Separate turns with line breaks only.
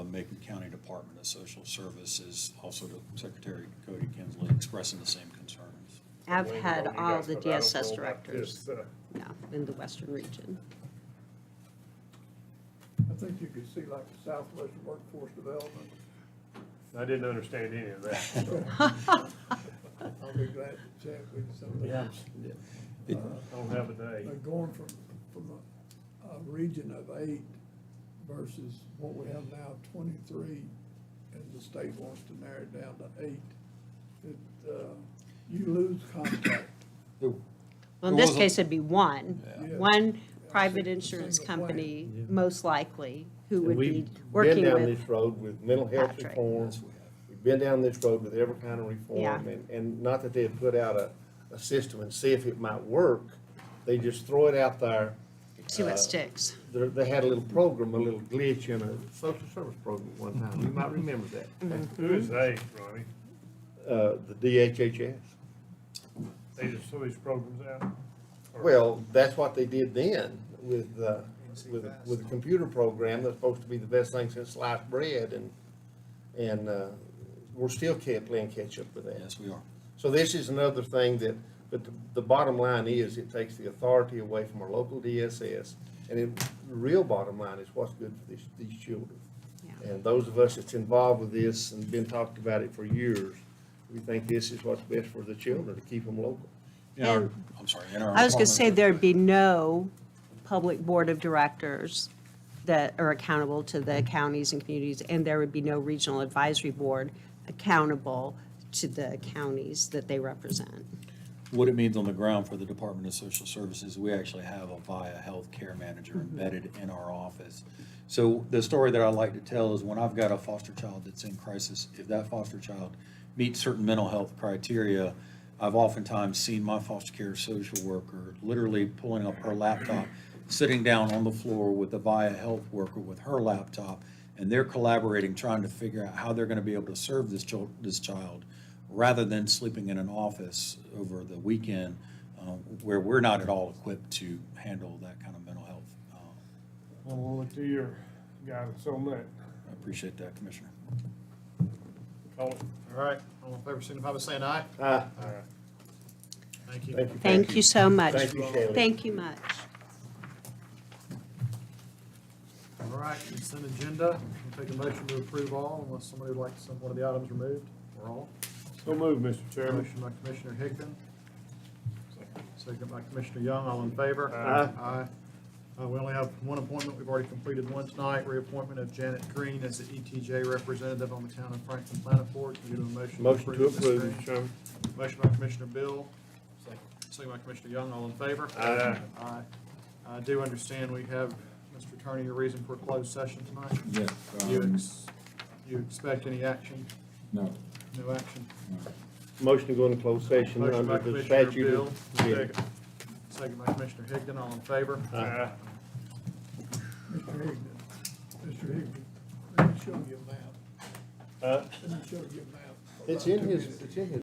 Macon County Department of Social Services, also to Secretary Cody Kinsley, expressing the same concerns.
I've
Wayne,
had
you
all
guys,
the
but I don't know
DSS
about
directors,
this, uh,
yeah, in the western region.
I think you could see like the Southwest Workforce Development,
I didn't understand any of that, so
I'll be glad to check with you some of those.
It-
I don't have a day.
But going from, from a, a region of eight versus what we have now, twenty-three, and the state wants to narrow it down to eight, it, uh, you lose contact.
Well, in
There
this
was a-
case, it'd be one,
Yeah.
one private
Single
insurance
plan.
company, most likely, who would be
We've been
working
down
with.
this road with mental health
Patrick.
reform. We've been down this road with every kind of reform,
Yeah.
and, and not that they had put out a, a system and see if it might work. They just throw it out there.
See
Uh,
what sticks.
There, they had a little program, a little glitch in a social service program at one time. You might remember that.
Who is they, Ronnie?
Uh, the DHHS.
They just throw these programs out? Or-
Well, that's what they did then with, uh, with, with a computer program that's supposed to be the best thing since sliced bread and, and, uh, we're still kept playing catch up with that.
Yes, we are.
So this is another thing that, but the, the bottom line is it takes the authority away from our local DSS. And it, the real bottom line is what's good for these, these children.
Yeah.
And those of us that's involved with this and been talking about it for years, we think this is what's best for the children, to keep them local.
In our-
And-
I'm sorry, in our.
I was gonna
department-
say there'd be no public board of directors that are accountable to the counties and communities, and there would be no regional advisory board accountable to the counties that they represent.
What it means on the ground for the Department of Social Services, we actually have a VIA healthcare manager embedded in our office. So the story that I like to tell is when I've got a foster child that's in crisis, if that foster child meets certain mental health criteria, I've oftentimes seen my foster care social worker literally pulling up her laptop, sitting down on the floor with a VIA health worker with her laptop, and they're collaborating, trying to figure out how they're going to be able to serve this child, this child rather than sleeping in an office over the weekend uh, where we're not at all equipped to handle that kind of mental health. Uh,
I will look to your guidance on that.
I appreciate that, Commissioner.
Call it.
All right, all in favor, signify by saying aye.
Ah,
Thank you.
thank you.
Thank you so much.
Thank you, Shelley.
Thank you much.
All right, consent agenda, we'll take a motion to approve all unless somebody would like some, one of the items removed, or all.
So move, Mr. Chairman.
Motion by Commissioner Higdon. Second by Commissioner Young, all in favor?
Aye.
Aye. Uh, we only have one appointment, we've already completed one tonight, reappointment of Janet Green as the ETJ representative on the town of Franklin Planet Board. Can you do a motion? to
Motion to
Ms.
approve.
Green?
Mr. Chairman.
Motion by Commissioner Bill, second- second by Commissioner Young, all in favor?
Aye.
Aye. I do understand we have, Mr. Attorney, your reason for a closed session tonight?
Yes.
You
um,
ex, you expect any action?
No.
No action?
Motion to go into closed session
Motion by
under the
Commissioner
statute.
Bill,
of-
second. Second by Commissioner Higdon, all in favor?
Aye.
Mr. Higdon, Mr. Higdon, let me show you a map,
Aye.
let me show you a map.
It's in his, it's in his